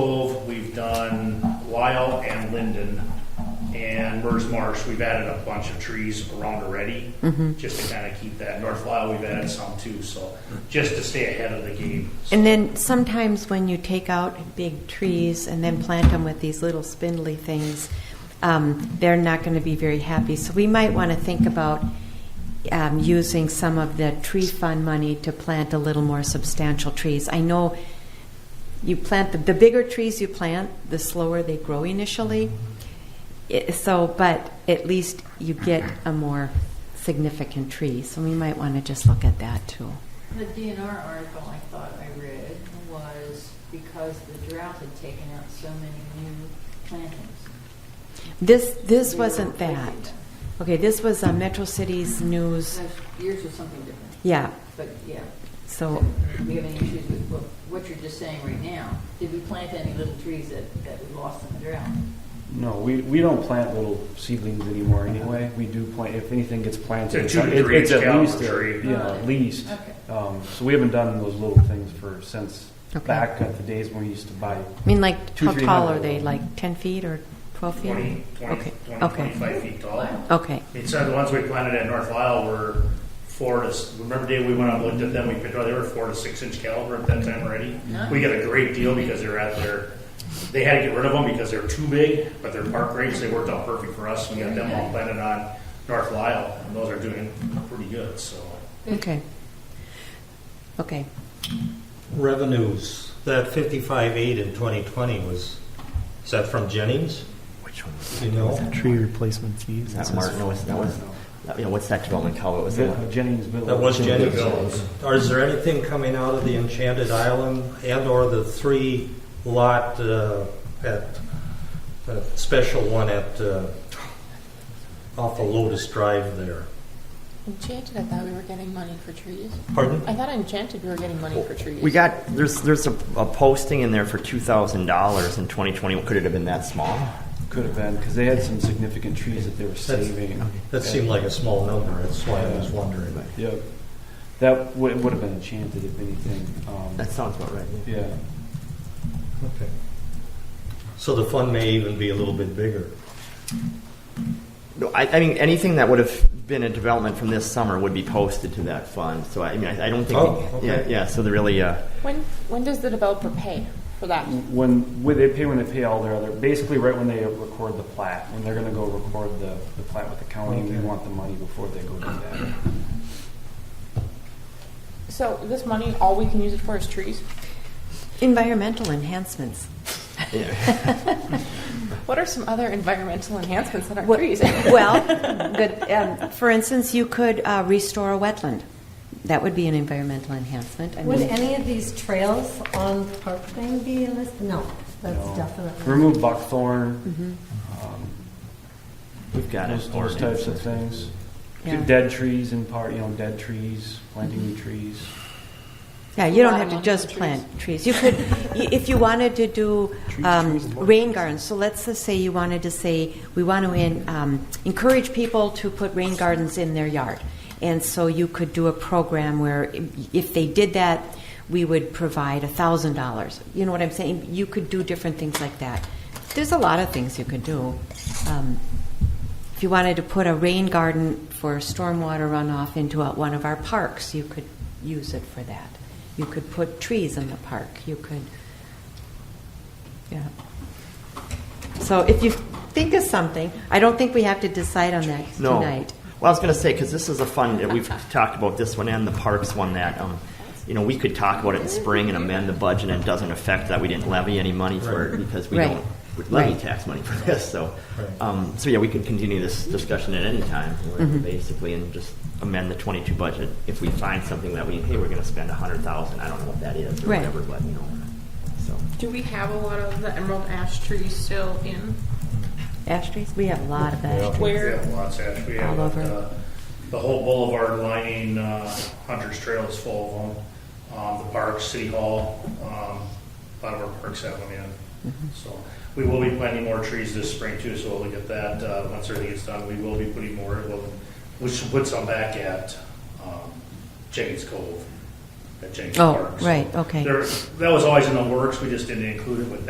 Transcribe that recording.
Cove, we've done Lyle and Linden, and Mers Marsh, we've added a bunch of trees around already, Mm-hmm. just to kind of keep that. North Lyle, we've added some too, so, just to stay ahead of the game. And then sometimes when you take out big trees and then plant them with these little spindly things, um, they're not going to be very happy. So we might want to think about um, using some of the tree fund money to plant a little more substantial trees. I know you plant the, the bigger trees you plant, the slower they grow initially. It, so, but at least you get a more significant tree. So we might want to just look at that too. The DNR article I thought I read was because the drought had taken out so many new plantings. This this They were wasn't replacing that. them. Okay, this was uh, Metro Cities News. So Yours was something different, Yeah, but yeah. so Do we have any issues with what- what you're just saying right now? Did we plant any little trees that, that we lost in the drought? No, we, we don't plant little seedlings anymore anyway. We do plant, if anything gets planted, It's it's, a two degree it's at caliber least, a- tree. yeah, at least. Okay. Um, so we haven't done those little things for, since Okay. back at the days when we used to buy. I mean, like, Two, how three tall hundred. are they? Like ten feet or twelve feet? 20, 20, okay. 20, okay. 25 feet tall. Wow. Okay. And so the ones we planted at North Lyle were four to, s- remember Dave, we went out and looked at them, we picked, oh, they were four to six inch caliber at that time already. Nice. We got a great deal because they're out there, they had to get rid of them because they're too big, but they're park rates, they worked out perfect for us. We got them all planted on North Lyle, and those are doing pretty good, so. Okay. Okay. Revenues, that fifty-five eight in twenty twenty was, is that from Jennings? Which one? You know, Tree replacement fees. That Martin, no, it's- that was, that- you know, what's that development called? What was Je- the one? Jenningsville. that was Jennings. Jenningsville. Or is there anything coming out of the Enchanted Island and/or the three lot uh, at the special one at uh, off of Lotus Drive there? Enchanted, I thought we were getting money for trees. Pardon? I thought Enchanted we were getting money for trees. We got, there's, there's a, a posting in there for two thousand dollars in twenty twenty. Could it have been that small? Could have been, because they had some significant trees that they were saving. That seemed like a small number. That's why I was wondering. Yep. That would, would have been enchanted if anything. Um, That sounds about right. yeah. yeah. Okay. So the fund may even be a little bit bigger. No, I, I mean, anything that would have been a development from this summer would be posted to that fund. So I, I mean, I, I don't think. Oh, okay. Yeah, yeah. So they're really, uh, When, when does the developer pay for that? Mm. When, when they pay when they pay all their other, basically right when they record the plat, when they're gonna go record the, the plat with the county, we want the money before they go do that. So this money, all we can use it for is trees? Environmental enhancements. What are some other environmental enhancements that are What- trees? well, good. Um, for instance, you could uh, restore a wetland. That would be an environmental enhancement. I Would mean, any of these trails on Park Lane be listed? No, that's definitely. Mm-hmm. Remove buckthorn. um, we've got Those, it. those types of things. Yeah. Dead trees in part, you know, dead trees, planting new trees. Yeah, you A don't lot have of to money just for plant trees. You could, y- if you wanted to do um, rain gardens, so let's just say you wanted to say, we want to in- um, encourage people to put rain gardens in their yard. And so you could do a program where i- if they did that, we would provide $1,000. You know what I'm saying? You could do different things like that. There's a lot of things you could do. Um, If you wanted to put a rain garden for stormwater runoff into a- one of our parks, you could use it for that. You could put trees in the park, you could, yeah. So if you think of something, I don't think we have to decide on that No. tonight. Well, I was going to say because this is a fund that we've talked about this one and the parks one that um, you know we could talk about it in spring and amend the budget and it doesn't affect that we didn't levy any money for it because we Right. don't we levy Right. tax money for this. So Right. um, so yeah, we could continue this discussion at any time Mm-hmm. basically and just amend the 22 budget if we find something that we hey we're going to spend 100,000 I don't know what that is or Right. whatever but you know so Do we have a lot of the emerald ash trees still in? Ash trees, we have a lot of ash trees. We Where, have lots, actually, we All have, over. uh, the whole boulevard lining, uh, Hunter's Trail is full of them. Um, the park, City Hall, um, a lot of our parks have them in. Mm-hmm. So, we will be planting more trees this spring too, so we'll look at that, uh, once everything gets done, we will be putting more, we'll, we should put some back at, um, Jennings Cove, at Jennings Oh, Park. So right, okay. There, that was always in the works, we just didn't include it with